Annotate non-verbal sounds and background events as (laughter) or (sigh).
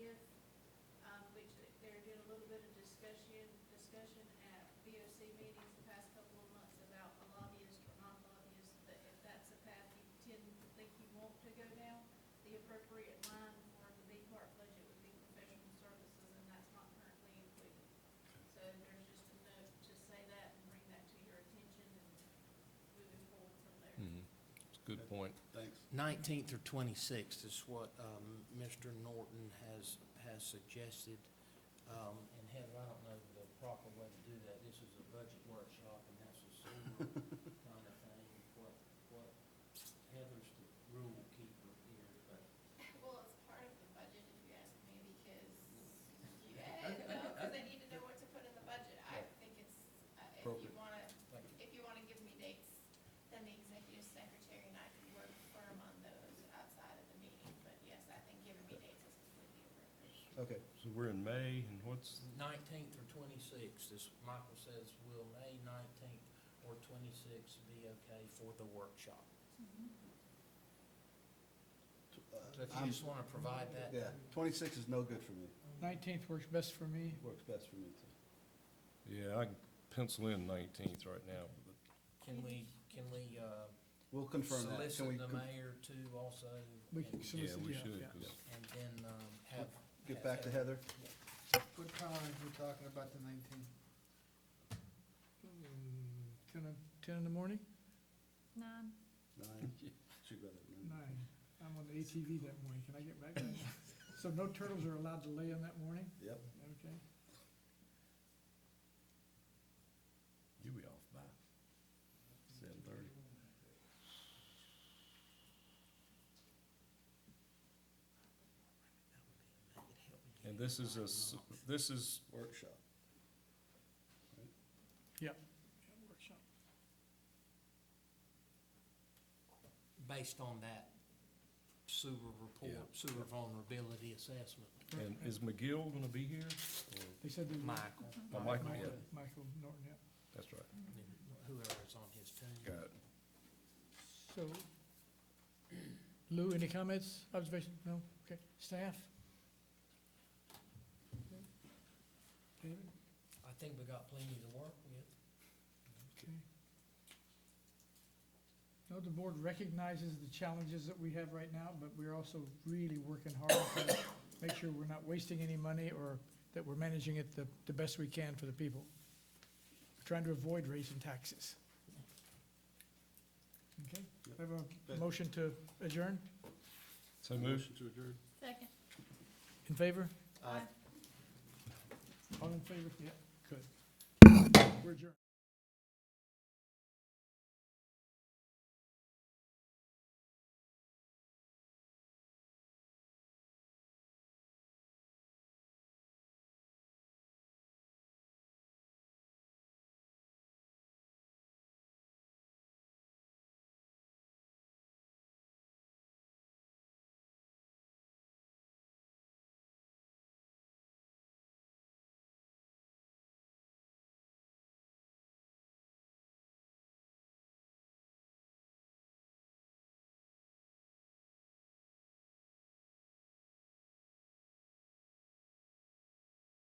um, SEC meetings the past couple of months about a lobbyist or not lobbyist, that if that's a path you tend to think you want to go down, the appropriate line for the big part budget would be professional services, and that's not currently included. So there's just a note to say that and bring that to your attention and moving forward from there. It's a Mm-hmm. good point. Thanks. 19th or 26th is what um, Mr. Norton has, has suggested. Um, And Heather, I don't know the proper way to do that. This is a budget workshop, and that's a similar (laughs) kind of thing. What, what, Heather's the rule keeper here, but. Well, it's part of the budget, if you ask me, because you, Okay, okay, because they okay. need to know what to put in the budget. I think it's, uh, if you Appropriate. wanna, Thank you. if you wanna give me dates, then the executive secretary and I can work firm on those outside of the meeting. But yes, I think giving me dates is completely appropriate. Okay, so we're in May, and what's, 19th or 26th, as Michael says, will May 19th or 26th be okay for the workshop? uh, So if you I'm- just want to provide that. yeah, twenty-six is no good for me. Nineteenth works best for me. Works best for me, too. Yeah, I can pencil in nineteenth right now. but Can we, can we uh, We'll confirm that. Can we solicit the con- mayor too also? We can and- Yeah, solicit, we yeah, should, yeah. 'cause And then um, have. Get have back to Heather. What time are we talking about the nineteenth? Mm, Ten, o- ten in the morning? Nine. (laughs) Nine. She'd rather nine. Nine. I'm on the ATV that morning. Can I get (coughs) back? then? So no turtles are allowed to lay on that morning? Yep. Okay. you'll be off by seven thirty. And this is a, s- this is, Workshop. Based on that sewer Yeah. report, sewer vulnerability assessment. Mm-hmm. and is McGill gonna be here? They said they. were- Michael, Oh, Michael, yeah, Michael Norton, yeah. that's right. and whoever's on his team. Got it. So, Lou, any comments, observation? No? Okay. Staff? Okay. David? I think we got plenty to work with. Okay. No, the board recognizes the challenges that we have right now, but we're also really working hard to make sure we're not wasting any money or that we're managing it the, the best we can for the people. We're Trying to avoid raising taxes. Okay, I have a motion to adjourn, So move. to adjourn. Second. in favor? Aye. All in favor? Yeah, good. We're adjourned.